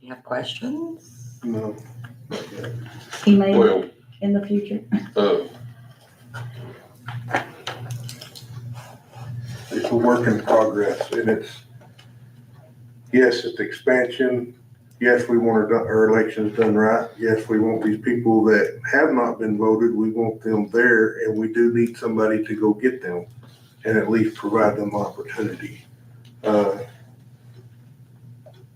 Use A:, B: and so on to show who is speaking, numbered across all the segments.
A: You have questions?
B: No.
C: He may
D: Well,
C: in the future.
D: uh,
B: It's a work in progress and it's, yes, it's expansion. Yes, we want our, do- our elections done right. Yes, we want these people that have not been voted, we want them there and we do need somebody to go get them and at least provide them opportunity. Uh,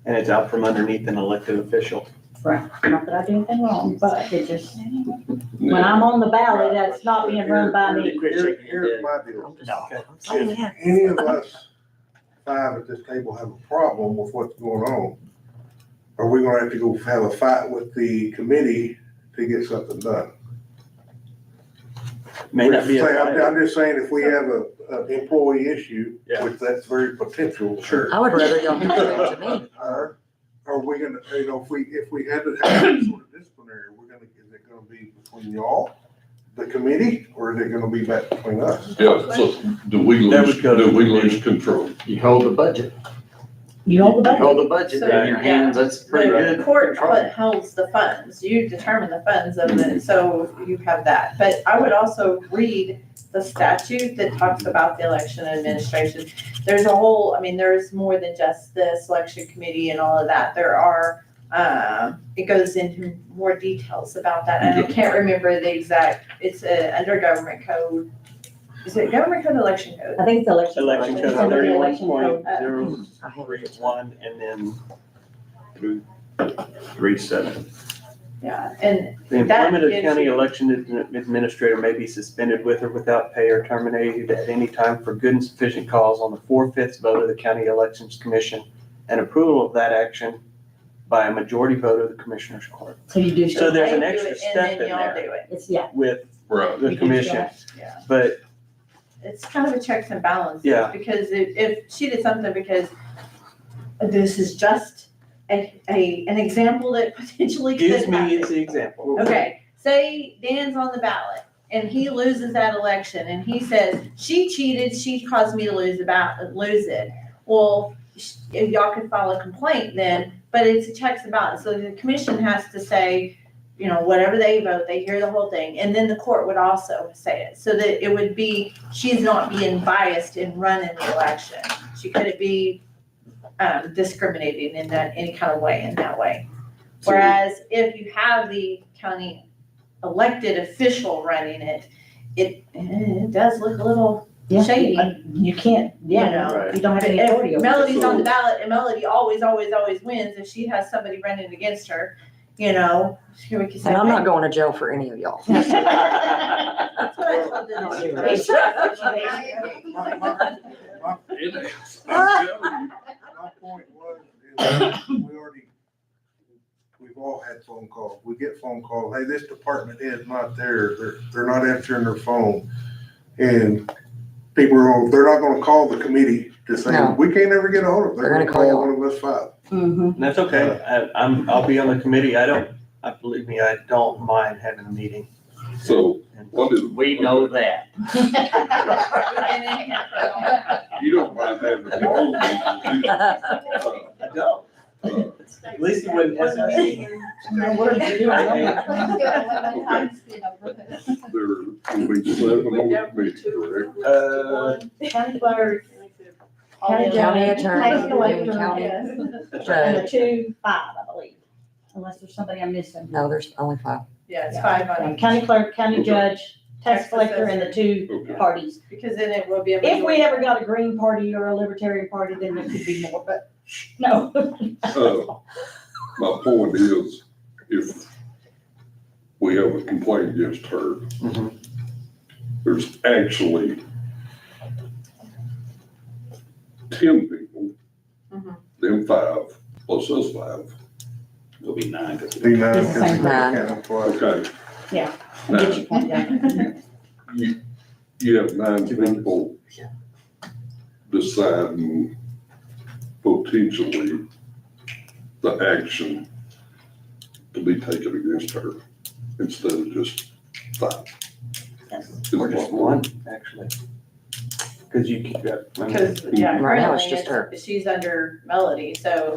E: And it's out from underneath an elected official.
C: Right. Not that I do anything wrong, but it just, when I'm on the ballot, that's not being run by me.
B: Here- Here's my deal.
A: I'm just-
E: No.
A: I'm
B: Oh,
A: saying, yeah.
B: any of us five at this table have a problem with what's going on, are we gonna have to go have a fight with the committee to get something done?
E: May not be a
B: Say, I'm,
E: fight.
B: I'm just saying, if we have a, an employee issue,
E: Yeah.
B: which that's very potential.
E: Sure.
A: I would rather y'all do that to me.
B: Are, are we gonna, you know, if we, if we had to have some sort of disciplinary, we're gonna, is it gonna be between y'all, the committee, or is it gonna be back between us?
D: yeah, so do we
E: That
D: lose,
E: would go to
D: do we
E: the-
D: lose control?
F: You hold the budget,
C: You hold the
F: you
C: budget.
F: hold the budget in your
G: So,
F: hands, that's pretty
G: The
F: good.
G: court what holds the funds, you determine the funds of it, so you have that. But I would also read the statute that talks about the election administration. There's a whole, I mean, there's more than just the selection committee and all of that. There are, um, it goes into more details about that. And I can't remember the exact, it's uh, under government code. Is it government code, election code?
C: I think it's election.
E: Election
C: It's
E: code
C: under the
E: thirty-one
C: election
E: point
C: code.
E: zero
A: I have
E: three
A: it.
E: one and then through three seven.
G: Yeah, and
E: The
G: That
E: employment of
G: gives
E: county
G: you-
E: election admi- administrator may be suspended with or without pay or terminated at any time for good and sufficient cause on the four-fifths vote of the county elections commission and approval of that action by a majority vote of the commissioners court
C: So you do,
E: So
C: show-
E: there's an
G: they do
E: extra
G: it
E: step in
G: And then
E: there.
G: y'all do it.
C: it's, yeah.
E: with
D: Right.
C: you
E: the
C: do
E: commission.
C: that.
G: Yeah.
E: But
G: it's kind of a checks and balances.
E: Yeah.
G: Because if, if she did something because this is just a, a, an example that potentially
E: Gives
G: could
E: me is
G: happen.
E: the example.
G: Okay, say Dan's on the ballot and he loses that election and he says, she cheated, she caused me to lose about, lose it. Well, sh- y'all could file a complaint then, but it's a checks and balance. So the commission has to say, you know, whatever they vote, they hear the whole thing. And then the court would also say it, so that it would be, she's not being biased in running the election. She couldn't be um, discriminating in that, any kind of way, in that way. Whereas if you have the county elected official running it, it, eh, it does look a little,
C: Yeah,
G: Shady.
C: You can't,
G: You know.
C: yeah, you don't have
G: but
C: any authority
G: if
C: over it.
G: Melody's on the ballot and Melody always, always, always wins, if she has somebody running against her, you know, she we could say.
A: And I'm not going to jail for any of y'all.
G: That's what I told them.
A: Well,
G: to
C: It's
G: do.
C: a situation.
B: My- my- my
D: It is. I'm telling you.
B: My point was, is we already, we've all had phone calls. We get phone calls, hey, this department is not there. They're, they're not answering their phone. And people are, they're not gonna call the committee to say,
A: No.
B: we can't ever get a hold of them.
A: They're gonna call
B: One of us five.
C: Mhm.
E: And that's okay. I, I'm, I'll be on the committee. I don't, I believe me, I don't mind having a meeting.
D: So what is?
F: We know that.
D: You don't mind having a long meeting, do you? Uh,
E: I don't.
D: uh,
E: At least it wouldn't.
G: What's the meeting?
D: There will be seven on the committee, correct?
E: Uh,
G: County clerk.
C: County
A: County
C: Take it away
A: attorney,
C: from
A: county
C: us. And the
A: judge.
C: two, five, I believe, unless there's somebody I'm missing.
A: No, there's only five.
G: Yeah, it's five on each,
C: County clerk, county
D: Okay.
C: judge, tax
G: Tax
C: collector, and the two
D: Okay.
C: parties.
G: because then it will be a.
C: If we ever got a Green Party or a Libertarian Party, then there could be more, but no.
D: Uh, My point is, if we have a complaint against her,
E: Mhm.
D: there's actually ten people,
G: Mhm.
D: them five, plus us five.
H: It'll be nine.
B: D nine,
C: It's the same.
B: County County Clerk.
D: Okay.
C: Yeah.
D: Now,
G: Yeah.
D: you, you have nine people deciding potentially the action to be taken against her instead of just five.
E: Or just one, actually. Cause you, can- I mean-
G: Because, yeah,
A: Right now, it's
G: currently
A: just her.
G: it's- she's under Melody, so